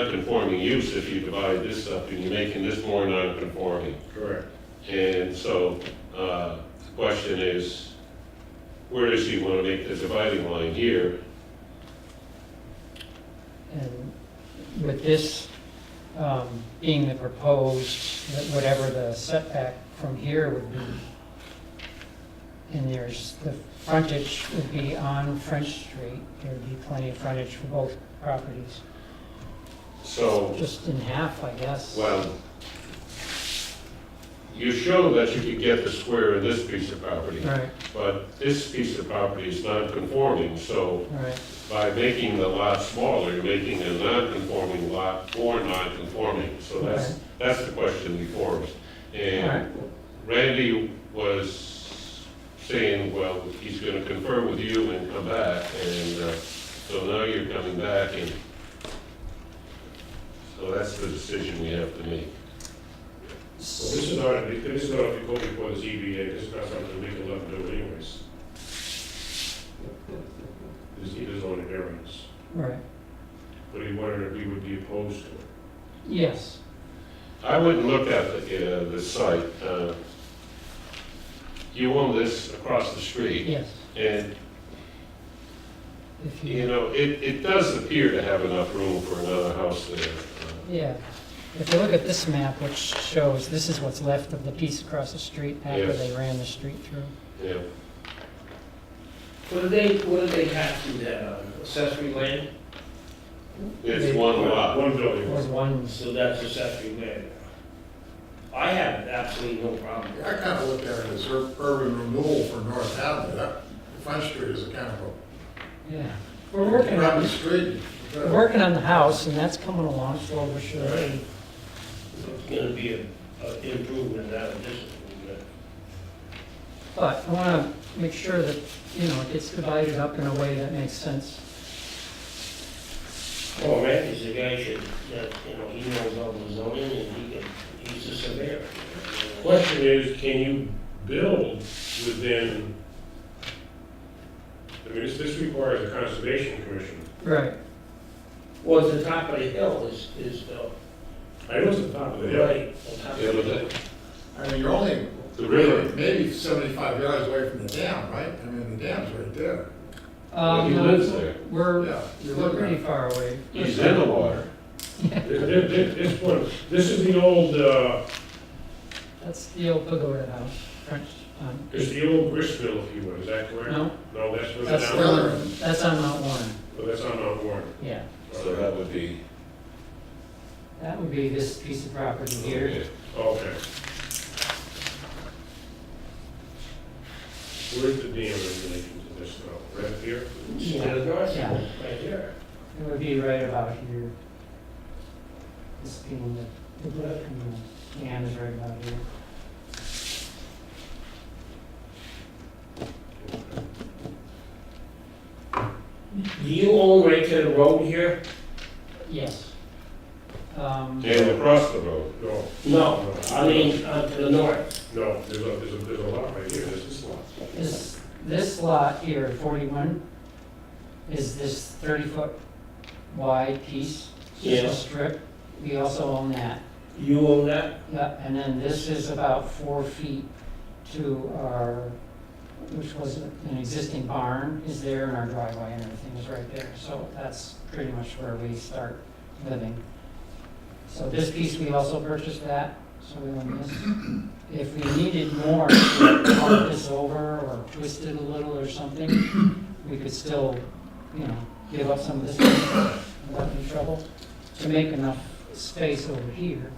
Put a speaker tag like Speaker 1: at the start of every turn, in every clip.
Speaker 1: non-conforming use if you divide this up, and you're making this more non-conforming.
Speaker 2: Correct.
Speaker 1: And so, uh, the question is, where does he want to make the dividing line here?
Speaker 3: And with this um, being the proposed, that whatever the setback from here would be, and there's, the frontage would be on French Street, there'd be plenty of frontage for both properties,
Speaker 1: So,
Speaker 3: just in half, I guess.
Speaker 1: well, you show that you could get the square in this piece of property,
Speaker 3: Right,
Speaker 1: but this piece of property is non-conforming, so
Speaker 3: right,
Speaker 1: by making the lot smaller, you're making a non-conforming lot more non-conforming. So that's, that's the question before us. And Randy was saying, well, he's gonna confer with you and come back, and, uh, so now you're coming back and, so that's the decision we have to make.
Speaker 2: This is not, this is not if you go before the ZBA, this is not something we can let do anyways. This is on a variance,
Speaker 3: right,
Speaker 2: but he wondered if we would be opposed to it.
Speaker 3: yes,
Speaker 1: I wouldn't look at the, uh, the site, uh, you own this across the street,
Speaker 3: yes,
Speaker 1: and
Speaker 3: if
Speaker 1: You
Speaker 3: you,
Speaker 1: know, it, it does appear to have enough room for another house there. Uh,
Speaker 3: yeah. If you look at this map, which shows, this is what's left of the piece across the street after
Speaker 1: Yes.
Speaker 3: they ran the street through.
Speaker 1: Uh, Yeah,
Speaker 4: What do they, what do they have to that on? accessory land?
Speaker 1: it's one lot.
Speaker 2: One
Speaker 3: It was
Speaker 2: building.
Speaker 3: one
Speaker 4: So that's accessory land. I have absolutely no problem with
Speaker 5: I
Speaker 4: that.
Speaker 5: kind of look at it as ur- urban renewal for North Avenue, that, Front Street is a kind of a
Speaker 3: Yeah, we're working on,
Speaker 5: private street.
Speaker 3: we're working on the house, and that's coming along slowly but surely.
Speaker 4: Right. It's gonna be a, a improvement, not a disimprovement.
Speaker 3: But I want to make sure that, you know, it gets divided up in a way that makes sense.
Speaker 4: Well, Randy's the guy should, that, you know, he knows all the zoning and he can, he's the surveyor.
Speaker 2: Question is, can you build within, I mean, this, this requires a conservation commission.
Speaker 3: Right.
Speaker 4: Well, the top of the hill is, is, uh,
Speaker 2: I know it's the top of the hill.
Speaker 4: right, on top
Speaker 1: Oh, Yeah,
Speaker 4: of the
Speaker 1: but
Speaker 4: hill.
Speaker 1: that-
Speaker 5: I mean, you're only
Speaker 1: The river.
Speaker 5: maybe seventy-five yards away from the dam, right? I mean, the dam's right there.
Speaker 1: Well,
Speaker 3: Um,
Speaker 1: he lives there.
Speaker 3: We're,
Speaker 5: Yeah, you're
Speaker 3: we're
Speaker 5: looking
Speaker 3: pretty
Speaker 5: at,
Speaker 3: far away.
Speaker 1: He's in the water.
Speaker 2: This, this- this one, this is the old, uh,
Speaker 3: That's the old pagoda house, French, um,
Speaker 2: it's the old gristmill, if you will, is that correct?
Speaker 3: no,
Speaker 2: No, that's where the
Speaker 3: that's,
Speaker 5: the
Speaker 2: down,
Speaker 5: other
Speaker 3: on-
Speaker 5: end.
Speaker 3: that's on Mount Warren,
Speaker 2: well, that's on Mount Warren.
Speaker 3: yeah.
Speaker 1: So that would be.
Speaker 3: That would be this piece of property here.
Speaker 2: Okay. Where's the dam in relation to this now? Right here?
Speaker 4: Yeah, the garage,
Speaker 3: Yeah.
Speaker 4: right there.
Speaker 3: It would be right about here. This being the, the, the dam is right about here.
Speaker 4: Do you own right to the road here?
Speaker 3: Yes. Um,
Speaker 1: And across the road.
Speaker 2: No,
Speaker 4: No, I mean, uh, to the north.
Speaker 2: no, there's a, there's a, there's a lot right here, this is lot.
Speaker 3: This, this lot here, 41, is this 30-foot wide piece? just a
Speaker 4: Yeah.
Speaker 3: Strip, we also own that.
Speaker 4: You own that?
Speaker 3: Yep, and then this is about four feet to our, which was an existing barn, is there, and our driveway and everything is right there. So that's pretty much where we start living. So this piece, we also purchased that, so we own this. If we needed more, to part this over or twist it a little or something, we could still, you know, give up some of this without any trouble to make enough space over here.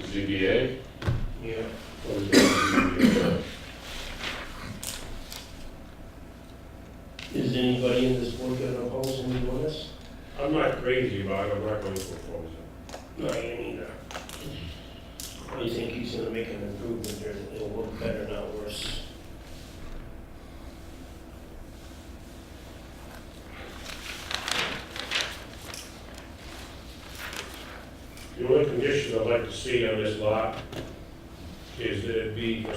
Speaker 1: ZBA.
Speaker 4: Yeah.
Speaker 2: What is that?
Speaker 4: Is anybody in this board gonna oppose any of this?
Speaker 2: I'm not crazy about it, I'm not going to propose it.
Speaker 4: No, you neither. Or you think he's gonna make an improvement here, that it'll look better, not worse?
Speaker 2: The only condition I'd like to see on this lot is that it be a